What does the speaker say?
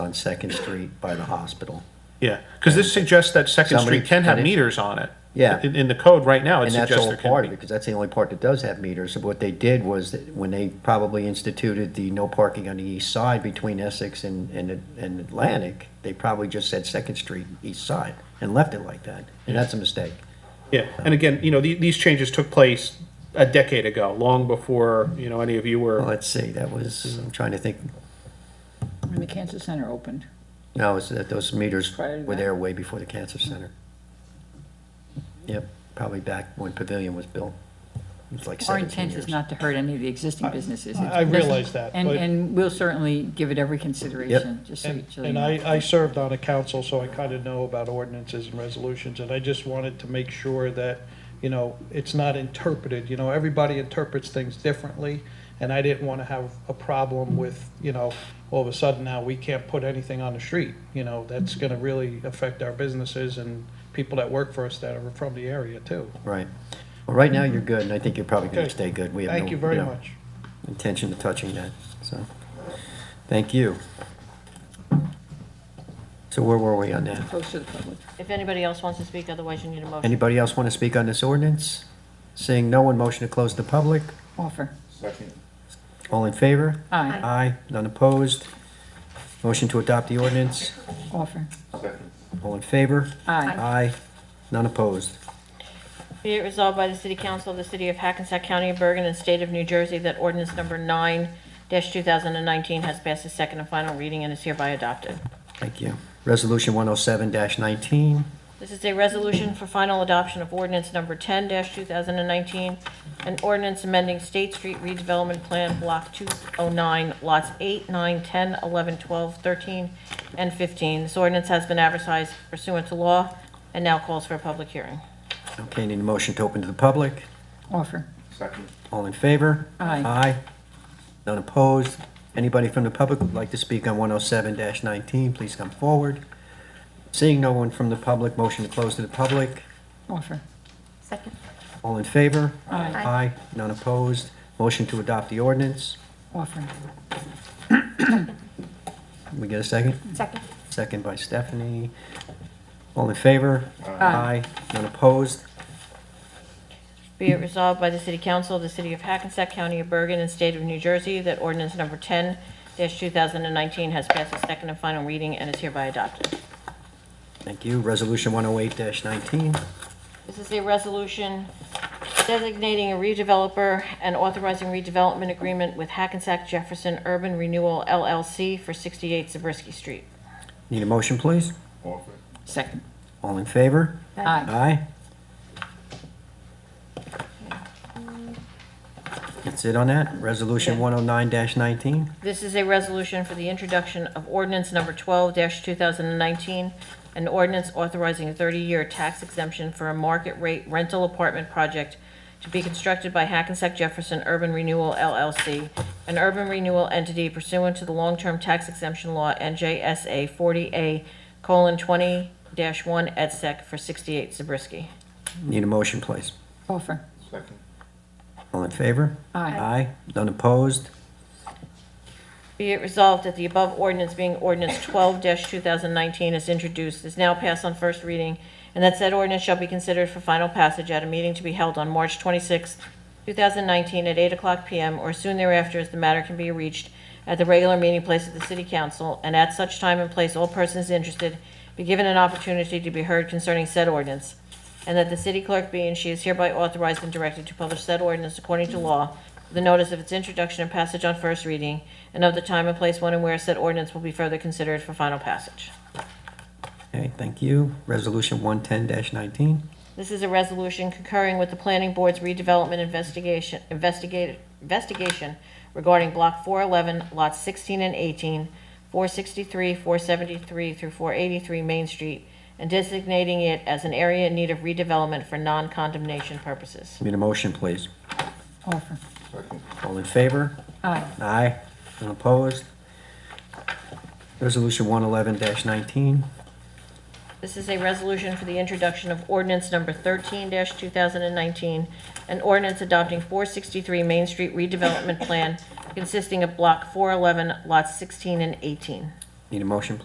on Second Street by the hospital. Yeah, because this suggests that Second Somebody Street can have put it- meters on it. Yeah. In, in the code right now, it And that's suggests all there part of can it, be. because that's the only part that does have meters. What they did was, that when they probably instituted the no parking on the east side between Essex and, and and Atlantic, they probably just said Second Street, east side, and left it like that. And that's a mistake. Yeah, and again, you know, the, these changes took place a decade ago, long before, you know, any of you Well, were. Let's see, that was, I'm trying to think, When the cancer center opened, no, it's that those meters Prior to were that? there way before the cancer center. Yep, probably back when Pavilion was built. It was like our 17 intent is years. not to hurt any of the existing businesses. I- I realize that, And, but- and we'll certainly give it every consideration, just so you And, so you and know. I, I served on a council, so I kind of know about ordinances and resolutions, and I just wanted to make sure that, you know, it's not interpreted, you know, everybody interprets things differently, and I didn't want to have a problem with, you know, all of a sudden now we can't put anything on the street, you know, that's going to really affect our businesses and people that work for us that are from the area too. Right. Well, right now, you're good, and I think you're probably going Okay. to stay good. We have no, Thank you very know, much. intention of touching that, so, thank you. So where were we on that? Close to the public. If anybody else wants to speak, otherwise you need a motion. Anybody else want to speak on this ordinance? Seeing no one, motion to close the public. Offer. All in favor? Aye. Aye, none opposed. Motion to adopt the ordinance. Offer. All in favor? Aye. Aye, none opposed. Be it resolved by the City Council of the City of Hackensack County of Bergen and State of New Jersey that ordinance number 9-2019 has passed its second and final reading and is hereby adopted. Thank you. Resolution 107-19, This is a resolution for final adoption of ordinance number 10-2019, an ordinance amending State Street redevelopment plan, Block 209, lots 8, 9, 10, 11, 12, 13, and 15. This ordinance has been advertised pursuant to law and now calls for a public hearing. okay, need a motion to open to the public. Offer. All in favor? Aye. Aye. None opposed. Anybody from the public would like to speak on 107-19, please come forward. Seeing no one from the public, motion to close to the public. Offer. Second. All in favor? Aye. Aye. None opposed. Motion to adopt the ordinance. Offer. We get a second? Second. Second by Stephanie. All in favor? Aye. None opposed. Be it resolved by the City Council of the City of Hackensack County of Bergen and State of New Jersey that ordinance number 10-2019 has passed its second and final reading and is hereby adopted. Thank you. Resolution 108-19. This is a resolution designating a redeveloper and authorizing redevelopment agreement with Hackensack Jefferson Urban Renewal LLC for 68 Zabriskie Street. Need a motion, please? Second. All in favor? Aye. Aye. That's it on that. Resolution 109-19. This is a resolution for the introduction of ordinance number 12-2019, an ordinance authorizing a 30-year tax exemption for a market-rate rental apartment project to be constructed by Hackensack Jefferson Urban Renewal LLC, an urban renewal entity pursuant to the long-term tax exemption law NJSA 40A:20-1 et sec. for 68 Zabriskie. Need a motion, please. Offer. All in favor? Aye. Aye. None opposed? Be it resolved that the above ordinance being ordinance twelve two thousand nineteen is introduced, is now passed on first reading, and that said ordinance shall be considered for final passage at a meeting to be held on March twenty-sixth, two thousand nineteen, at eight o'clock PM or soon thereafter, as the matter can be reached at the regular meeting place of the city council, and at such time and place, all persons interested be given an opportunity to be heard concerning said ordinance, and that the city clerk be and she is hereby authorized and directed to publish said ordinance according to law the notice of its introduction and passage on first reading, and of the time and place when and where said ordinance will be further considered for final passage. Okay, thank you. Resolution 110-19. This is a resolution concurring with the planning board's redevelopment investigation, investigate, investigation regarding block four eleven, lots sixteen and 18, 463, four seventy-three through four eighty-three Main Street, and designating it as an area in need of redevelopment for non-condemnation purposes. Need a motion, please. Offer. All in favor? Aye. Aye. None opposed? Resolution 111-19. This is a resolution for the introduction of ordinance number 13-2019, an ordinance adopting 463 Main Street redevelopment plan consisting of Block 411, Lots 16 and 18. Need a motion,